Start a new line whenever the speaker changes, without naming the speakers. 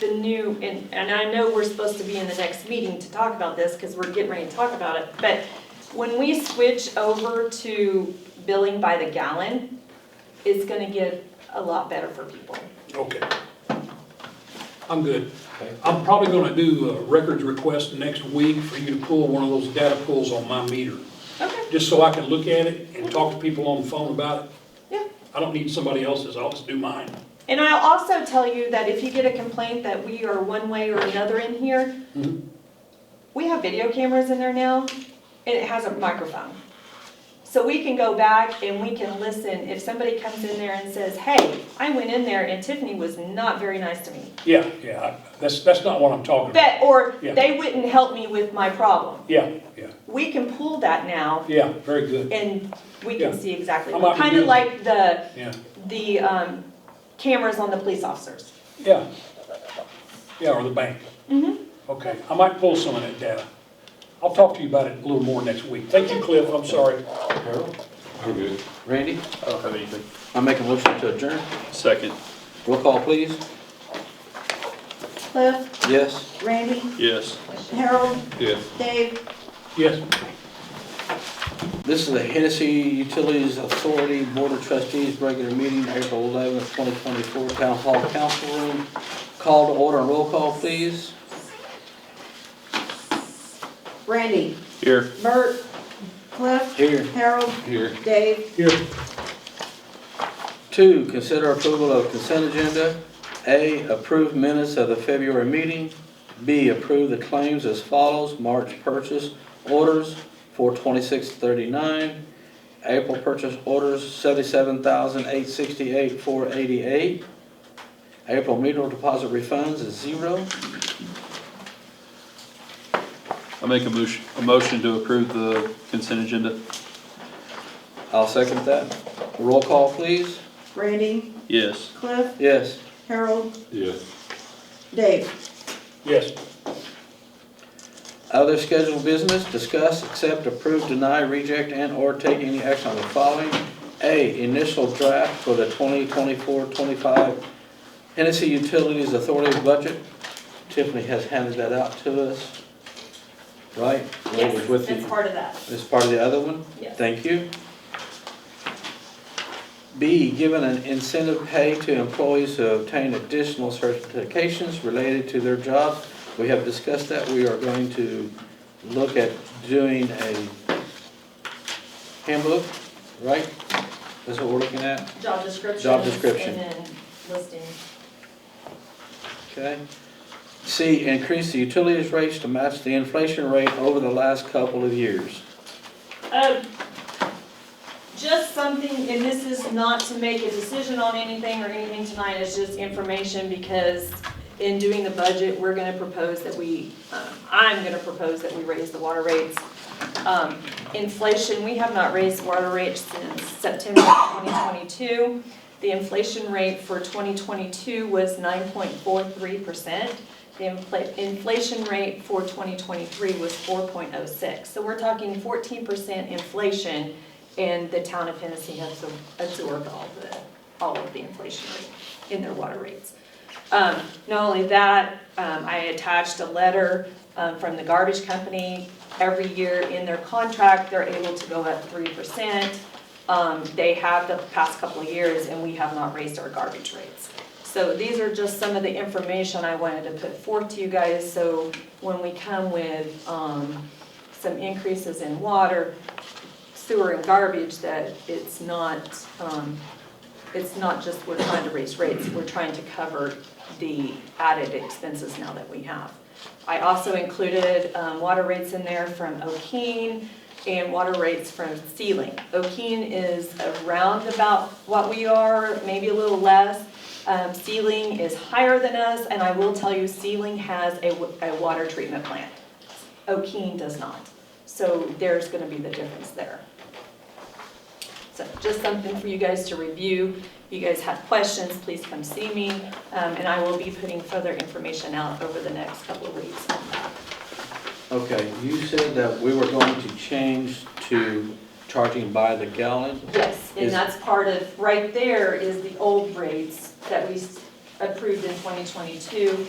the new, and, and I know we're supposed to be in the next meeting to talk about this, because we're getting ready to talk about it, but when we switch over to billing by the gallon, it's gonna get a lot better for people.
Okay. I'm good. I'm probably gonna do a records request next week for you to pull one of those data pulls on my meter,
Okay.
just so I can look at it and talk to people on the phone about it.
Yeah.
I don't need somebody else's, I'll just do mine.
And I'll also tell you that if you get a complaint that we are one way or another in here,
Mhm.
we have video cameras in there now, and it has a microphone. So we can go back and we can listen. If somebody comes in there and says, hey, I went in there and Tiffany was not very nice to me.
Yeah, yeah, I- that's, that's not what I'm talking about.
But, or
Yeah.
they wouldn't help me with my problem.
Yeah, yeah,
We can pull that now
yeah, very good,
and we
Yeah.
can see exactly.
I might be
Kind of
good.
like the,
yeah,
the um, cameras on the police officers.
yeah. Yeah, or the bank.
Mhm.
Okay, I might pull some of that data. I'll talk to you about it a little more next week. Thank you, Cliff, I'm sorry.
Harold?
I'm good.
Randy?
I don't have anything.
I make a motion to adjourn.
Second,
Roll call, please.
Cliff,
Yes.
Randy,
yes.
Harold,
Yes.
Dave,
Yes,
This is the Hennessy Utilities Authority Board of Trustees Regular Meeting, April eleventh, twenty twenty-four, Town Hall Council Room. Call to order and roll call, please.
Randy,
Here.
Bert, Cliff,
Here.
Harold,
Here.
Dave,
here.
Two, consider approval of consent agenda. A, approve minutes of the February meeting. B, approve the claims as follows, March purchase orders for twenty-six thirty-nine, April purchase orders seventy-seven thousand eight sixty-eight four eighty-eight, April meter deposit refunds is zero.
I make a motion, a motion to approve the consent agenda.
I'll second that. Roll call, please.
Randy,
Yes.
Cliff,
Yes.
Harold,
Yes.
Dave.
Yes.
Other scheduled business, discuss, accept, approve, deny, reject, and/or take any action on the following. A, initial draft for the 2024-25 Hennessy Utilities Authority budget. Tiffany has handed that out to us, right? It was with
It's
you.
part of that.
It's part of the other one?
Yes.
Thank you. B, given an incentive pay to employees who obtain additional certifications related to their jobs. We have discussed that. We are going to look at doing a handbook, right? That's what we're looking at,
Job description.
Job description.
And then listing.
okay? C, increase the utilities rates to match the inflation rate over the last couple of years.
Um, Just something, and this is not to make a decision on anything or anything tonight, it's just information because in doing the budget, we're gonna propose that we, um, I'm gonna propose that we raise the water rates. Um, Inflation, we have not raised water rates since September of 2022. The inflation rate for 2022 was 9.43%. The infl- inflation rate for 2023 was 4.06. So we're talking 14% inflation, and the town of Hennessy has to absorb all the, all of the inflation rate in their water rates. Um, Not only that, um, I attached a letter um, from the garbage company. Every year in their contract, they're able to go up 3%. Um, They have the past couple of years, and we have not raised our garbage rates. So these are just some of the information I wanted to put forth to you guys, so when we come with um, some increases in water, sewer and garbage, that it's not, um, it's not just we're trying to raise rates, we're trying to cover the added expenses now that we have. I also included um, water rates in there from Okeen and water rates from Sealing. Okeen is around about what we are, maybe a little less. Um, Sealing is higher than us, and I will tell you, Sealing has a, w- a water treatment plant. Okeen does not. So there's gonna be the difference there. So just something for you guys to review. If you guys have questions, please come see me, um, and I will be putting further information out over the next couple of weeks on that.
Okay, you said that we were going to change to charging by the gallon.
Yes, and
Is-
that's part of, right there is the old rates that we s- approved in 2022.